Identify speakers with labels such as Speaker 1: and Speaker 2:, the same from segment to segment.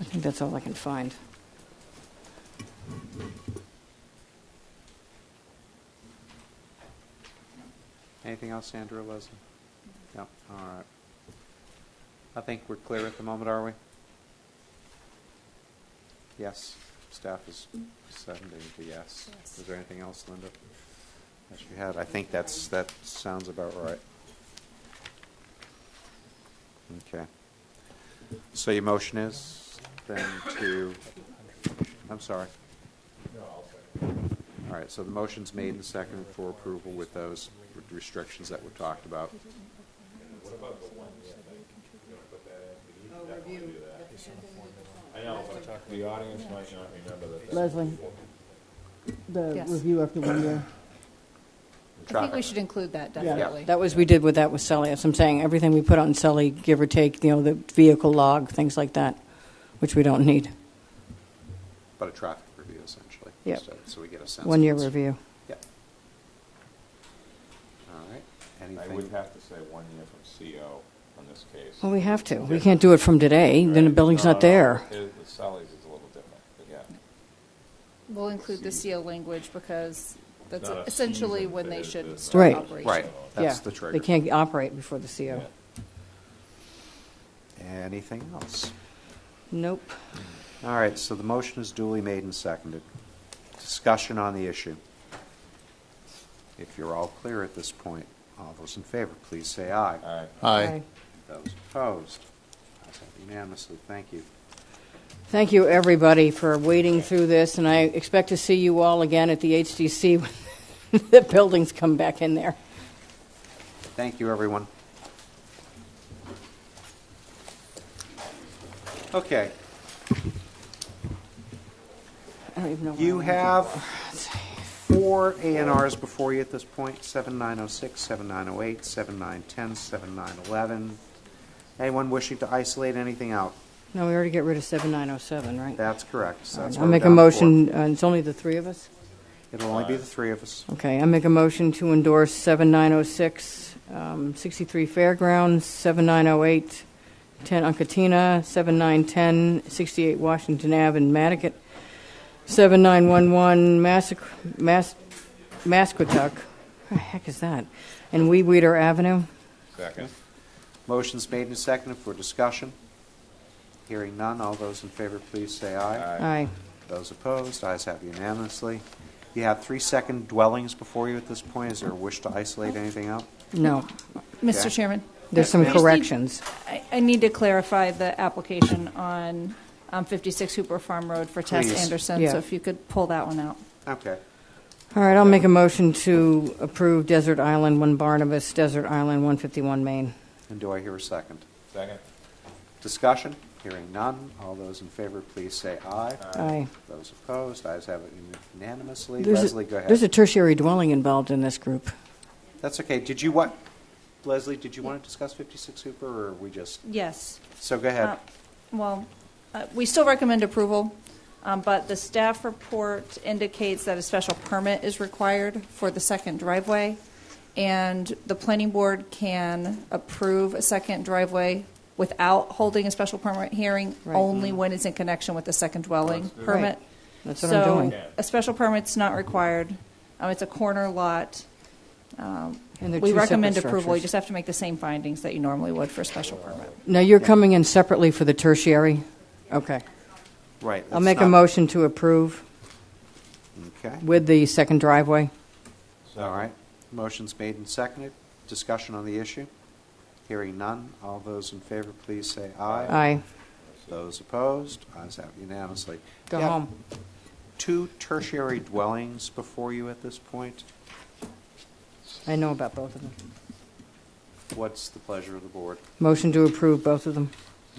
Speaker 1: I think that's all I can find.
Speaker 2: Anything else, Sandra, or Leslie? No, all right. I think we're clear at the moment, are we? Yes, staff is sending the yes.
Speaker 3: Yes.
Speaker 2: Is there anything else, Linda? That you had, I think that's, that sounds about right. Okay. So your motion is then to, I'm sorry. All right, so the motion's made and seconded for approval with those restrictions that were talked about.
Speaker 4: The audience might not remember that.
Speaker 5: Leslie, the
Speaker 3: Yes.
Speaker 5: review after one year.
Speaker 3: I think we
Speaker 2: Traffic.
Speaker 3: should include that,
Speaker 5: Yeah.
Speaker 3: definitely.
Speaker 1: That was, we did with that with Sully, as I'm saying, everything we put on Sully, give or take, you know, the vehicle log, things like that, which we don't need.
Speaker 2: But a traffic review essentially.
Speaker 1: Yep.
Speaker 2: So- So we get a sense.
Speaker 1: One-year
Speaker 2: of what's-
Speaker 1: review.
Speaker 2: Yep. All right,
Speaker 4: I would
Speaker 2: anything?
Speaker 4: have to say one year from CO on this case. Uh,
Speaker 1: Well, we have to. We can't do it from today, then the building's
Speaker 2: Uh,
Speaker 1: not there.
Speaker 4: The Sally's is a little different, but yeah.
Speaker 3: We'll include the
Speaker 4: See.
Speaker 3: CO language because that's
Speaker 4: not a
Speaker 3: essentially
Speaker 4: season,
Speaker 3: when
Speaker 4: it
Speaker 3: they
Speaker 4: is
Speaker 3: should
Speaker 4: business.
Speaker 3: start
Speaker 1: Right.
Speaker 3: operation.
Speaker 2: Right, that's
Speaker 1: Yeah,
Speaker 2: the trigger.
Speaker 1: They can't operate before the CO.
Speaker 4: Yeah.
Speaker 2: Anything else?
Speaker 1: Nope.
Speaker 2: All right, so the motion is duly made and seconded. Discussion on the issue. If you're all clear at this point, all those in favor, please say aye.
Speaker 4: All right.
Speaker 1: Aye.
Speaker 2: Those opposed? Ayes have it Unanimously, thank you.
Speaker 1: Thank you, everybody, for wading through this, and I expect to see you all again at the HDC when the buildings come back in there.
Speaker 2: Thank you, everyone. Okay,
Speaker 1: I don't even know. where I
Speaker 2: you
Speaker 1: am.
Speaker 2: have four A and Rs before you at this point, 7906, 7908, 7910, 7911. Anyone wishing to isolate anything out?
Speaker 1: No, we already get rid of 7907, right?
Speaker 2: That's correct. So that's
Speaker 1: I'll
Speaker 2: what we're
Speaker 1: make a
Speaker 2: down for.
Speaker 1: motion, uh, it's only the three of us?
Speaker 2: It'll only be the three of us.
Speaker 1: Okay, I make a motion to endorse 7906, um, 63 Fairgrounds, 7908, 10 Uncatina, 7910, 68 Washington Ave in Matticat, 7911 Massac- Mas- Masquatuck, what the heck is that? And Wee Weeder Avenue.
Speaker 4: Second.
Speaker 2: Motion's made and seconded for discussion. Hearing none, all those in favor, please say aye.
Speaker 1: Aye.
Speaker 2: Those opposed, ayes have unanimously. You have three second dwellings before you at this point. Is there a wish to isolate anything out?
Speaker 1: No,
Speaker 2: Okay.
Speaker 3: Mr. Chairman,
Speaker 1: there's some
Speaker 2: Yes, ma'am.
Speaker 1: corrections.
Speaker 3: I, I need to clarify the application on um, 56 Hooper Farm Road for Tess
Speaker 2: Please.
Speaker 3: Anderson,
Speaker 1: Yeah.
Speaker 3: so if you could pull that one out.
Speaker 2: Okay.
Speaker 1: All right, I'll make a motion to approve Desert Island 1 Barnabas, Desert Island 151 Maine.
Speaker 2: And do I hear a second?
Speaker 4: Second.
Speaker 2: Discussion? Hearing none, all those in favor, please say aye.
Speaker 1: Aye.
Speaker 2: Those opposed, ayes have it unanimously.
Speaker 1: There's a-
Speaker 2: Leslie, go ahead.
Speaker 1: There's a tertiary dwelling involved in this group.
Speaker 2: That's okay. Did you want, Leslie, did you want to discuss 56 Hooper, or are we just,
Speaker 3: Yes.
Speaker 2: so go ahead.
Speaker 3: Uh, Well, uh, we still recommend approval, um, but the staff report indicates that a special permit is required for the second driveway, and the planning board can approve a second driveway without holding a special permit hearing,
Speaker 1: Right. Mm.
Speaker 3: only when it's in connection with the second dwelling permit.
Speaker 1: Right. That's what I'm doing.
Speaker 3: So a special permit's not required. Um, It's a corner lot.
Speaker 1: And they're
Speaker 3: We
Speaker 1: two separate
Speaker 3: recommend approval. You
Speaker 1: structures.
Speaker 3: just have to make the same findings that you normally would for a special permit.
Speaker 1: Now, you're coming in separately for the tertiary? Okay.
Speaker 2: Right.
Speaker 1: I'll
Speaker 2: that's
Speaker 1: make a
Speaker 2: not-
Speaker 1: motion to approve
Speaker 2: Okay.
Speaker 1: with the second driveway.
Speaker 2: All right. Motion's made and seconded. Discussion on the issue? Hearing none. All those in favor, please say aye.
Speaker 1: Aye.
Speaker 2: Those opposed, ayes have unanimously.
Speaker 1: Go
Speaker 2: You have
Speaker 1: home.
Speaker 2: Two tertiary dwellings before you at this point.
Speaker 1: I know about both of them.
Speaker 2: What's the pleasure of the board?
Speaker 1: Motion to approve both of them.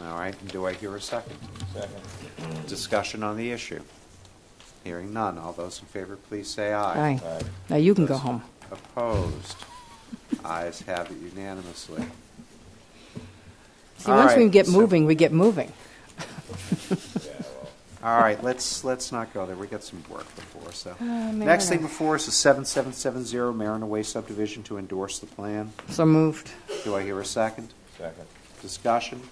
Speaker 2: All right, and do I hear a second?
Speaker 4: Second.
Speaker 2: Discussion on the issue? Hearing none. All those in favor, please say aye.
Speaker 1: Aye.
Speaker 4: All right.
Speaker 1: Now, you can go home.
Speaker 2: Opposed? Ayes have it unanimously.
Speaker 1: See,
Speaker 2: All
Speaker 1: once we
Speaker 2: right,
Speaker 1: get
Speaker 2: so-
Speaker 1: moving, we get moving.
Speaker 2: All right, let's, let's not go there. We got some work before, so.
Speaker 1: Uh,
Speaker 2: Next thing before us is 7770 Marina Way subdivision to endorse the plan.
Speaker 1: So moved.
Speaker 2: Do I hear a second?
Speaker 4: Second.
Speaker 2: Discussion?